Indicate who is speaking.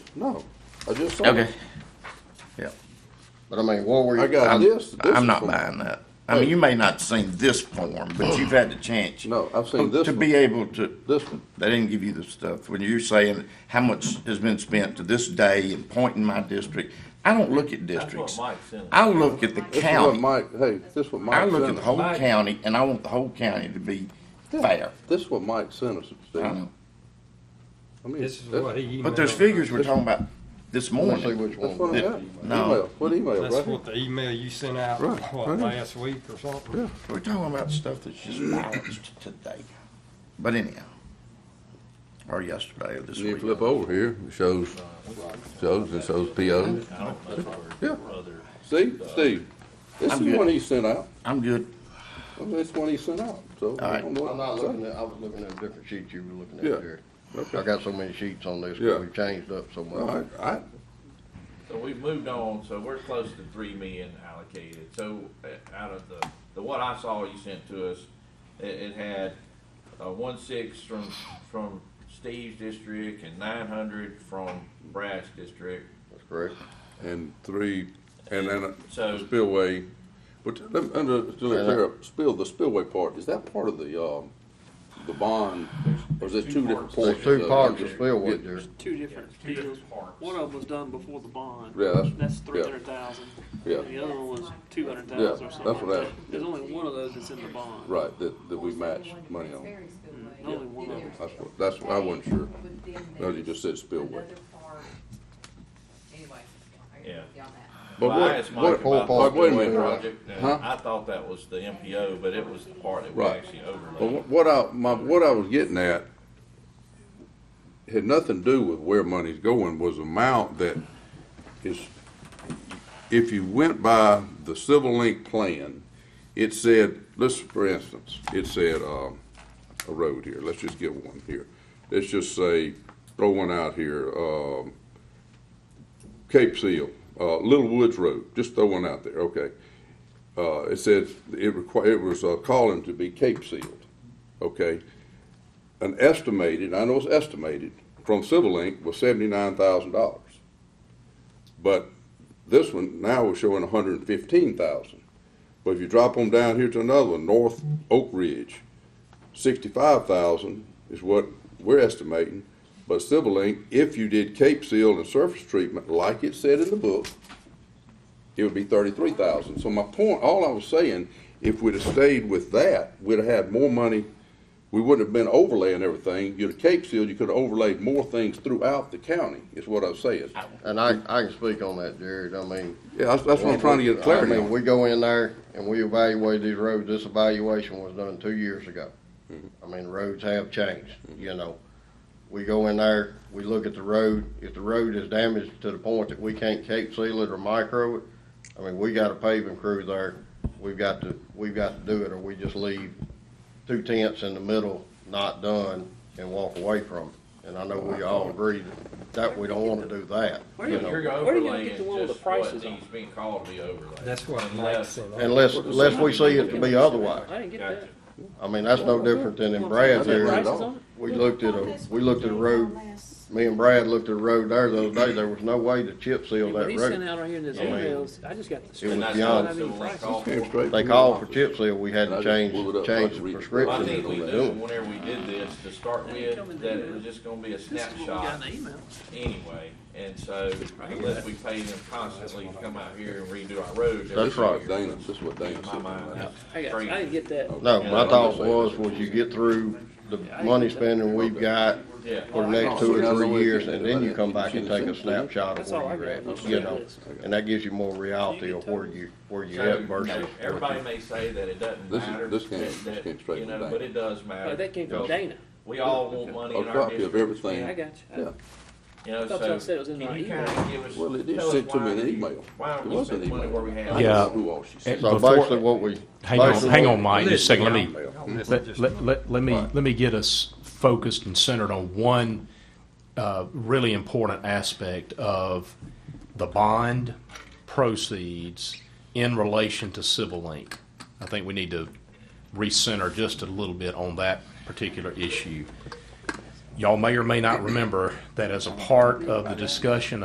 Speaker 1: No, I just saw
Speaker 2: Okay.
Speaker 1: it.
Speaker 2: Yep.
Speaker 3: But I mean, what were you?
Speaker 1: I got
Speaker 2: I'm,
Speaker 1: this. this
Speaker 2: Um,
Speaker 1: is
Speaker 2: I'm not
Speaker 1: from-
Speaker 2: buying that. I mean, you may not have seen this form, but you've had the chance.
Speaker 1: No, I've seen this
Speaker 2: To
Speaker 1: one.
Speaker 2: be able to,
Speaker 1: This one.
Speaker 2: they didn't give you the stuff. When you're saying how much has been spent to this day and pointing my district, I don't look at
Speaker 4: That's what
Speaker 2: districts.
Speaker 4: Mike sent. us.
Speaker 2: I look at the
Speaker 1: This is what
Speaker 2: county.
Speaker 1: Mike. Hey, this is what Mike.
Speaker 2: I look
Speaker 1: sent
Speaker 2: at the
Speaker 1: us.
Speaker 2: whole
Speaker 4: Mike-
Speaker 2: county and I want the whole county to be
Speaker 1: Yeah.
Speaker 2: fair.
Speaker 1: This is what Mike sent us.
Speaker 2: I
Speaker 1: Steve.
Speaker 2: know.
Speaker 1: I mean,
Speaker 5: This is
Speaker 1: that's-
Speaker 5: what he emailed.
Speaker 2: But those figures we're talking about
Speaker 3: Let's
Speaker 2: this
Speaker 3: see
Speaker 2: morning,
Speaker 3: which
Speaker 1: That's what
Speaker 3: one.
Speaker 1: I
Speaker 2: Yeah,
Speaker 1: got.
Speaker 2: no.
Speaker 1: Email. What email,
Speaker 5: That's
Speaker 1: right?
Speaker 5: what the email you sent out,
Speaker 1: Right,
Speaker 5: what,
Speaker 1: right.
Speaker 5: last week or something?
Speaker 2: we're talking about stuff that's just balanced today. But anyhow, or yesterday or this
Speaker 1: You
Speaker 2: week.
Speaker 1: flip over here, it shows, shows, it shows POs.
Speaker 4: I don't know if
Speaker 1: Yeah.
Speaker 4: our brother.
Speaker 1: See, Steve, this is
Speaker 2: I'm
Speaker 1: the
Speaker 2: good.
Speaker 1: one he sent out.
Speaker 2: I'm good.
Speaker 1: I mean, That's the one he sent out, so. I
Speaker 2: right.
Speaker 1: don't know what
Speaker 3: I'm
Speaker 1: to
Speaker 3: not
Speaker 1: say.
Speaker 3: looking at, I was looking at a different sheet you were looking
Speaker 1: Yeah.
Speaker 3: at, Jerry. I got so many sheets on this,
Speaker 1: Yeah.
Speaker 3: we changed up so
Speaker 1: All right,
Speaker 3: much.
Speaker 1: I,
Speaker 4: So we've moved on, so we're close to three million allocated, so uh, out of the, the what I saw you sent to us, it, it had, uh, one six from, from Steve's district and nine hundred from Brad's district.
Speaker 3: That's correct.
Speaker 1: and three, and then
Speaker 4: So-
Speaker 1: a spillway, but let me, under, to let
Speaker 3: Yeah.
Speaker 1: clear up, spill, the spillway part, is that part of the, um, the bond? Or is it two different
Speaker 3: There's
Speaker 1: portions?
Speaker 3: two
Speaker 1: of-
Speaker 3: parts of spillway,
Speaker 1: Yeah,
Speaker 3: Jerry.
Speaker 6: two different deals. One of them was done before the bond.
Speaker 1: Yeah, that's-
Speaker 6: That's
Speaker 1: yeah.
Speaker 6: three hundred thousand.
Speaker 1: Yeah.
Speaker 6: And the other one was two hundred
Speaker 1: Yeah,
Speaker 6: thousand or
Speaker 1: that's
Speaker 6: something
Speaker 1: what I-
Speaker 6: like that. There's only one of those that's in the bond.
Speaker 1: Right, that, that we match money on,
Speaker 6: Mm-hmm. Only one of them.
Speaker 1: that's what, that's what I wasn't sure, no, you just said spillway.
Speaker 7: Anyway, I
Speaker 4: Yeah.
Speaker 7: got beyond that.
Speaker 1: But
Speaker 4: Well, I
Speaker 1: what-
Speaker 4: asked
Speaker 1: what-
Speaker 4: Mike about the
Speaker 3: Paul,
Speaker 1: but wait a
Speaker 4: Speedway
Speaker 1: minute.
Speaker 4: project, uh, and
Speaker 1: Huh?
Speaker 4: I thought that was the MPO, but it was the part that we
Speaker 1: Right.
Speaker 4: actually
Speaker 1: But
Speaker 4: overlaid.
Speaker 1: wh- what I, my, what I was getting at had nothing to do with where money's going, was amount that is, if you went by the Civil Link plan, it said, let's, for instance, it said, um, a road here, let's just give one here. Let's just say, throw one out here, um, Cape Seal, uh, Little Woods Road, just throw one out there, okay? uh, it said it requi- it was uh, calling to be Cape sealed, okay? An estimated, I know it's estimated, from Civil Link was seventy-nine thousand dollars. But this one now we're showing a hundred and fifteen thousand. But if you drop them down here to another one, North Oak Ridge, sixty-five thousand is what we're estimating. But Civil Link, if you did Cape Seal and surface treatment, like it said in the book, it would be thirty-three thousand. So my point, all I was saying, if we'd have stayed with that, we'd have had more money. We wouldn't have been overlaying everything. You'd have Cape Seal, you could have overlaid more things throughout the county, is what I'm saying.
Speaker 3: And I, I can speak on that, Jared, I mean.
Speaker 1: Yeah, that's, that's what I'm trying to get clarity
Speaker 3: I mean,
Speaker 1: on.
Speaker 3: We go in there and we evaluate these roads, this evaluation was done two years ago.
Speaker 1: Mm-hmm.
Speaker 3: I mean, roads have changed, you know. We go in there, we look at the road, if the road is damaged to the point that we can't cape seal it or micro it, I mean, we got a paving crew there, we've got to, we've got to do it, or we just leave two tenths in the middle, not done, and walk away from it. And I know we all agree that, that we don't wanna do that,
Speaker 6: Where do
Speaker 3: you
Speaker 6: you-
Speaker 3: know.
Speaker 4: You're
Speaker 6: Where do you get
Speaker 4: overlaying
Speaker 6: the one with the
Speaker 4: just what
Speaker 6: prices on?
Speaker 4: needs being called to be overlaid.
Speaker 5: That's what Mike
Speaker 4: Unless-
Speaker 5: sent. out.
Speaker 3: Unless, unless we see it to be otherwise.
Speaker 6: I didn't get
Speaker 4: Gotcha.
Speaker 6: that.
Speaker 3: I mean, that's no different than in Brad's
Speaker 6: Prices
Speaker 3: area.
Speaker 6: on it?
Speaker 3: We looked at a, we looked at a road, me and Brad looked at a road there the other day, there was no way to chip seal
Speaker 6: What
Speaker 3: that
Speaker 6: he sent
Speaker 3: road.
Speaker 6: out right here in his
Speaker 4: Yeah.
Speaker 6: emails, I just got the.
Speaker 3: was
Speaker 4: And that's
Speaker 3: beyond-
Speaker 4: what Civil Link called for.
Speaker 1: Came straight
Speaker 3: They
Speaker 1: from
Speaker 3: called
Speaker 1: your
Speaker 3: for chip seal, we had to change, change the
Speaker 4: I
Speaker 3: prescription
Speaker 4: think
Speaker 3: that
Speaker 4: we
Speaker 3: we
Speaker 4: knew
Speaker 3: doing.
Speaker 4: whenever we did this, to start with, that it was just gonna be a
Speaker 6: This is what we
Speaker 4: snapshot
Speaker 6: got in the email.
Speaker 4: anyway. And so unless we pay them constantly to come out here and redo our roads every
Speaker 3: That's
Speaker 4: few
Speaker 3: right.
Speaker 4: years.
Speaker 1: Dana, this is what Dana
Speaker 4: In my
Speaker 1: said.
Speaker 4: mind, that's
Speaker 6: I got, you. I didn't
Speaker 4: crazy.
Speaker 6: get that.
Speaker 3: No, my thought was, was you get through the money spending we've got
Speaker 4: Yeah.
Speaker 3: for the next two or three years, and then you come back and take a snapshot of where you're at, you know? And that gives you more reality of where you, where you're
Speaker 4: So,
Speaker 3: at
Speaker 4: you know,
Speaker 3: versus.
Speaker 4: everybody may say that it doesn't
Speaker 1: This is-
Speaker 4: matter.
Speaker 1: this came-
Speaker 4: that-
Speaker 1: this
Speaker 4: that,
Speaker 1: came straight
Speaker 4: you
Speaker 1: from
Speaker 4: know,
Speaker 1: Dana.
Speaker 4: But it does
Speaker 6: Oh,
Speaker 4: matter.
Speaker 6: that came from
Speaker 4: because
Speaker 6: Dana.
Speaker 4: We all want money
Speaker 1: A
Speaker 4: in our
Speaker 1: copy of
Speaker 4: district.
Speaker 1: everything.
Speaker 6: I got you.
Speaker 1: Yeah.
Speaker 4: You know,
Speaker 6: I thought
Speaker 4: so
Speaker 6: y'all said it was in
Speaker 4: can
Speaker 6: my
Speaker 4: you
Speaker 6: email.
Speaker 4: kinda give us-
Speaker 1: Well, it
Speaker 4: tell
Speaker 1: is
Speaker 4: us
Speaker 1: sent to
Speaker 4: why
Speaker 1: me in an
Speaker 4: you-
Speaker 1: email.
Speaker 4: Why
Speaker 1: It
Speaker 4: aren't we
Speaker 1: was an
Speaker 4: spending money where we
Speaker 1: email.
Speaker 4: have?
Speaker 1: I
Speaker 4: it?
Speaker 8: Yeah.
Speaker 1: just knew all she said.
Speaker 8: And
Speaker 3: So
Speaker 8: before-
Speaker 3: basically what we.
Speaker 8: Hang on,
Speaker 3: basically
Speaker 8: hang
Speaker 3: what-
Speaker 8: on, Mike, just a second, let me,
Speaker 5: That's
Speaker 8: let,
Speaker 5: just-
Speaker 8: let, let, let me,
Speaker 1: Right.
Speaker 8: let me get us focused and centered on one, uh, really important aspect of the bond proceeds in relation to Civil Link. I think we need to recenter just a little bit on that particular issue. Y'all may or may not remember that as a part of the discussion